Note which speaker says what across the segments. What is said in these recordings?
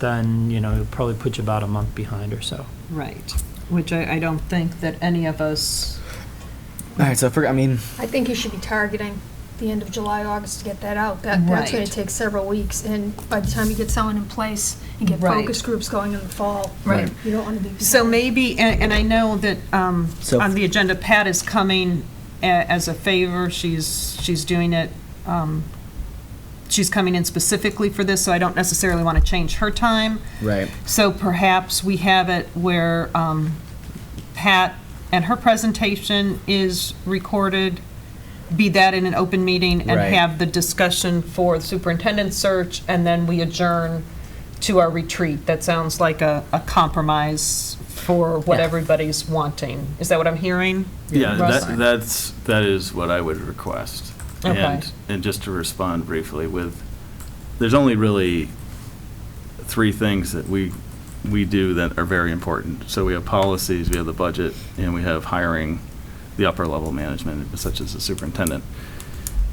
Speaker 1: then, you know, it'll probably put you about a month behind or so.
Speaker 2: Right, which I, I don't think that any of us,
Speaker 3: All right, so for, I mean,
Speaker 4: I think you should be targeting the end of July, August to get that out. That, that's gonna
Speaker 2: Right.
Speaker 4: take several weeks, and by the time you get someone in place and get
Speaker 2: Right.
Speaker 4: focus groups going in the fall,
Speaker 2: Right.
Speaker 4: you don't wanna be.
Speaker 2: so maybe, and, and I know that, um,
Speaker 3: So-
Speaker 2: on the agenda, Pat is coming a- as a favor, she's, she's doing it, um, she's coming in specifically for this, so I don't necessarily want to change her time.
Speaker 3: right.
Speaker 2: So perhaps we have it where um, Pat and her presentation is recorded, be that in an open meeting, and
Speaker 3: Right.
Speaker 2: have the discussion for the superintendent search, and then we adjourn to our retreat. That sounds like a a compromise for what
Speaker 3: Yeah.
Speaker 2: everybody's wanting. Is that what I'm hearing?
Speaker 5: Yeah,
Speaker 2: Russ?
Speaker 5: that, that's, that is what I would request.
Speaker 2: Okay.
Speaker 5: And, and just to respond briefly with, there's only really three things that we, we do that are very important. So we have policies, we have the budget, and we have hiring the upper level management, such as the superintendent.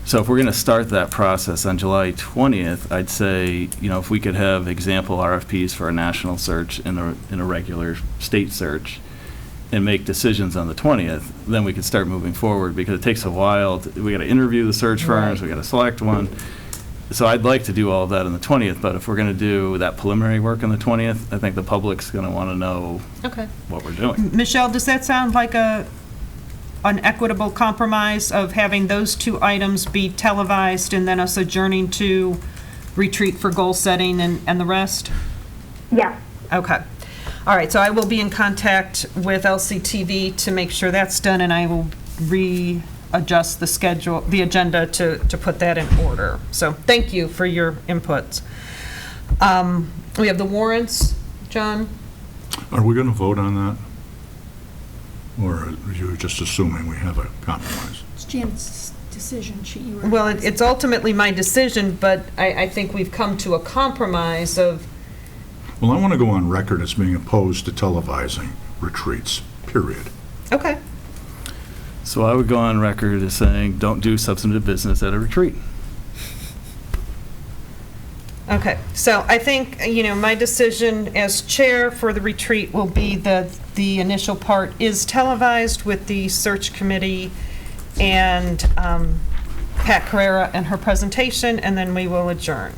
Speaker 5: So if we're going to start that process on July 20th, I'd say, you know, if we could have example RFPs for a national search and a, and a regular state search, and make decisions on the 20th, then we could start moving forward, because it takes a while, to- we got to interview the search firms, we got to select one. So I'd like to do all of that on the 20th, but if we're going to do that preliminary work on the 20th, I think the public's going to want to know
Speaker 2: Okay.
Speaker 5: what we're doing.
Speaker 2: Michelle, does that sound like a, an equitable compromise of having those two items be televised and then us adjourning to retreat for goal setting and, and the rest?
Speaker 6: Yeah.
Speaker 2: Okay. All right, so I will be in contact with LCTV to make sure that's done, and I will readjust the schedule, the agenda to, to put that in order. So thank you for your inputs. Um, We have the warrants, John?
Speaker 7: Are we going to vote on that? Or are you just assuming we have a compromise?
Speaker 4: It's Jan's decision, she, you were.
Speaker 2: Well, it- it's ultimately my decision, but I, I think we've come to a compromise of,
Speaker 7: Well, I want to go on record as being opposed to televising retreats, period.
Speaker 2: okay,
Speaker 5: So I would go on record as saying, don't do substantive business at a retreat.
Speaker 2: okay. So I think, you know, my decision as chair for the retreat will be that the initial part is televised with the search committee and um, Pat Carrera and her presentation, and then we will adjourn.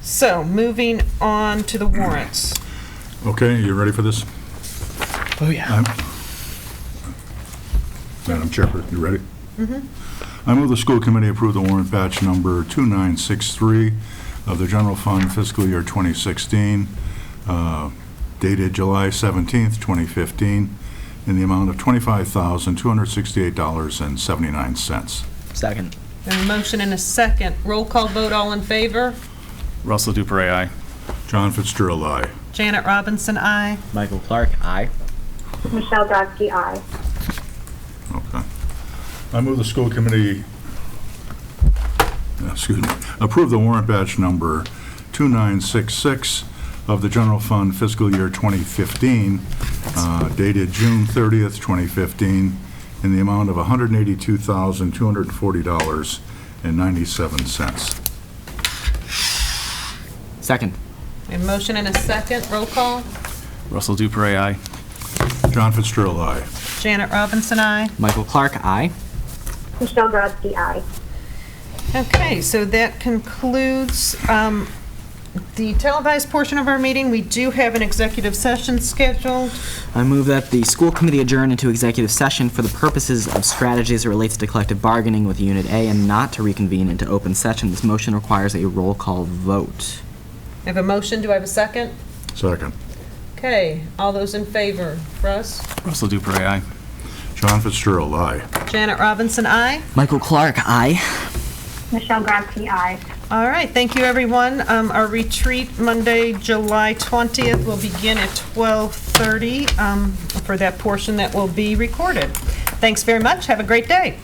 Speaker 2: So, moving on to the warrants.
Speaker 7: Okay, you ready for this?
Speaker 3: Oh, yeah.
Speaker 7: I'm- Madam Chairperson, you ready? I move the school committee approve the warrant batch number 2963 of the general fund fiscal year 2016, uh, dated July 17th, 2015, in the amount of $25,268.79.
Speaker 3: Second.
Speaker 2: A motion and a second. Roll call vote, all in favor?
Speaker 5: Russell Dupre, aye.
Speaker 7: John Fitzgerald, aye.
Speaker 2: Janet Robinson, aye.
Speaker 3: Michael Clark, aye.
Speaker 6: Michelle Grotzky, aye.
Speaker 7: Okay. I move the school committee, excuse me, approve the warrant batch number 2966 of the general fund fiscal year 2015, uh, dated June 30th, 2015, in the amount of $182,240.97.
Speaker 3: Second.
Speaker 2: A motion and a second. Roll call.
Speaker 5: Russell Dupre, aye.
Speaker 7: John Fitzgerald, aye.
Speaker 2: Janet Robinson, aye.
Speaker 3: Michael Clark, aye.
Speaker 6: Michelle Grotzky, aye.
Speaker 2: Okay, so that concludes um, the televised portion of our meeting. We do have an executive session scheduled.
Speaker 3: I move that the school committee adjourn into executive session for the purposes of strategies that relates to collective bargaining with Unit A and not to reconvene into open session. This motion requires a roll call vote.
Speaker 2: I have a motion. Do I have a second?
Speaker 7: Second.
Speaker 2: Okay, all those in favor? Russ?
Speaker 5: Russell Dupre, aye.
Speaker 7: John Fitzgerald, aye.
Speaker 2: Janet Robinson, aye.
Speaker 3: Michael Clark, aye.
Speaker 6: Michelle Grotzky, aye.
Speaker 2: All right, thank you, everyone. Um, Our retreat, Monday, July 20th, will begin at 12:30 um, for that portion that will be recorded. Thanks very much, have a great day.